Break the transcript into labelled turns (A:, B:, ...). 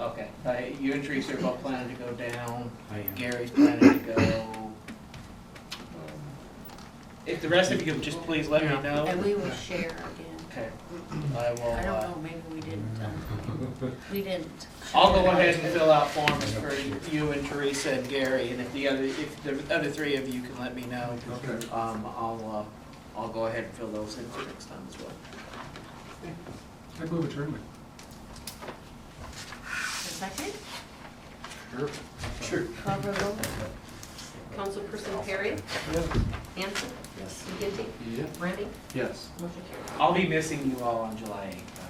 A: Okay, uh, you and Teresa are both planning to go down,
B: I am.
A: Gary's planning to go. um,
C: If the rest of you could just please let me
A: Yeah.
C: know.
D: And we will share again.
A: Okay, I will,
D: I don't
A: uh,
D: know, maybe we didn't, um, we didn't.
A: I'll go ahead and fill out forms for you and Teresa and Gary, and if the other, if the other three of you can let me know.
E: Okay.
A: Um, I'll, uh, I'll go ahead and fill those in for next time as well.
E: I move adjournment.
D: A Second,
A: Sure.
D: call for the roll.
F: Councilperson Perry? Hanson?
A: Yes.
F: McGinty?
E: Yeah.
F: Brandy?
E: Yes.
F: Motion carried.
C: I'll be missing you all on July eighth.